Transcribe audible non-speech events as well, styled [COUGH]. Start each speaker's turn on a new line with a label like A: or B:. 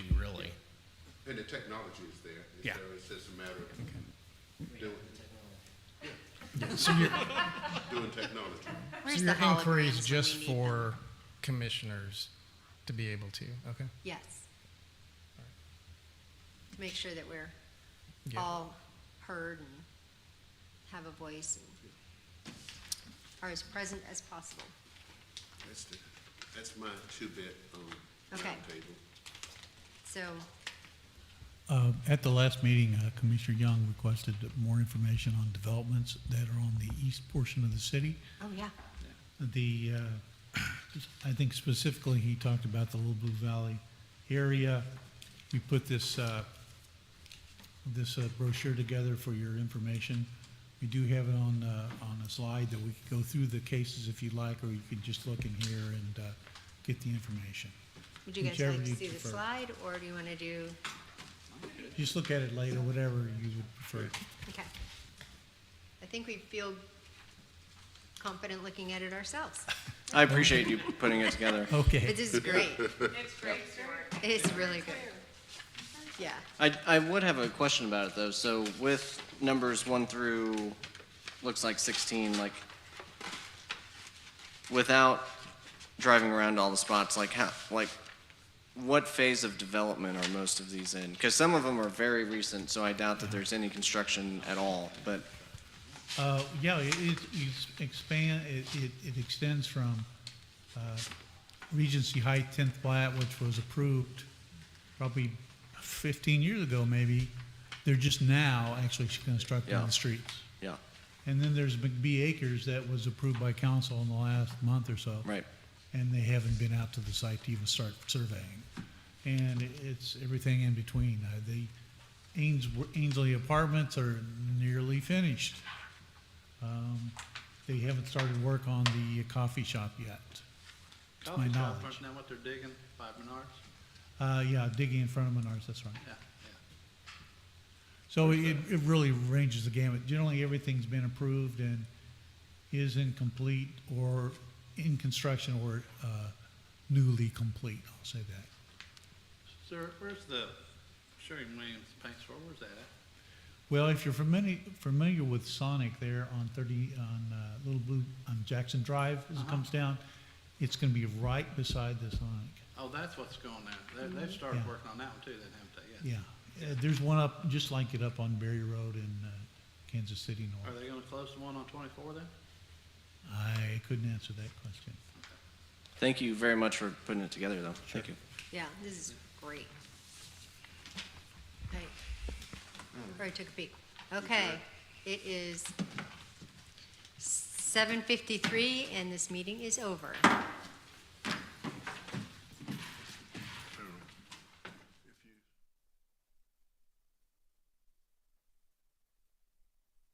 A: And the technology is there. It's
B: Yeah.
A: there. It's just a matter of doing,
B: So your,
A: doing technology.
C: Where's
B: so
C: the
B: your inquiry
C: holograms
B: is
C: when
B: just
C: we need them?
B: for commissioners to be able to, okay?
C: Yes. To make sure that we're
B: Yeah.
C: all heard and have a voice and are as present as possible.
A: That's the, that's my two-bit, um,
C: Okay.
A: roundtable.
C: So,
D: Uh, At the last meeting, uh, Commissioner Young requested more information on developments that are on the east portion of the city.
C: oh, yeah,
D: The, uh, [CLEARS THROAT] I think specifically, he talked about the Little Blue Valley area. We put this, uh, this uh, brochure together for your information. We do have it on, uh, on a slide that we can go through the cases if you'd like, or you could just look in here and uh, get the information.
C: would you guys
D: Whichever
C: like to
D: you
C: see the
D: prefer.
C: slide, or do you want to do,
D: Just look at it later, whatever you would prefer.
C: okay. I think we feel confident looking at it ourselves.
E: I appreciate you putting it together.
D: Okay.
C: But this is great,
F: It's great, Stuart.
C: it's really good. Yeah,
E: I, I would have a question about it though. So with numbers one through, looks like 16, like without driving around all the spots, like how, like what phase of development are most of these in? Because some of them are very recent, so I doubt that there's any construction at all. But
D: Uh, yeah, it, it it's expand, it, it, it extends from, uh, Regency Heights tenth plat, which was approved probably fifteen years ago, maybe. They're just now actually constructing
E: Yeah.
D: the streets.
E: yeah,
D: And then there's McBee Acres that was approved by council in the last month or so.
E: right.
D: And they haven't been out to the site to even start surveying. And it- it's everything in between. Uh, The Ains, Ainsley Apartments are nearly finished. Um, They haven't started work on the coffee shop yet. to Oh, my
G: Coffee shop,
D: knowledge.
G: isn't that what they're digging by Menards?
D: Uh, yeah, digging in front of Menards, that's right.
G: Yeah,
D: So it, it really ranges the gamut. Generally, everything's been approved and is incomplete or in construction or, uh, newly complete, I'll say that.
G: yeah. Sir, where's the Sherwin Williams paint store, where's that at?
D: Well, if you're familiar, familiar with Sonic there on 30, on uh, Little Blue, on Jackson Drive as it comes down, it's going to be right beside the Sonic.
G: Oh, that's what's going there, they, they've started
D: Mm-hmm. Yeah.
G: working on that one too, then, haven't they, yeah?
D: Yeah. Uh, There's one up, just like it up on Berry Road in uh, Kansas City
G: Are
D: North.
G: they gonna close the one on twenty-four then?
D: I couldn't answer that question.
E: Thank you very much for putting it together though. Thank you.
C: yeah, this is great. Right, already took a peek. Okay, it is seven fifty-three, and this meeting is over.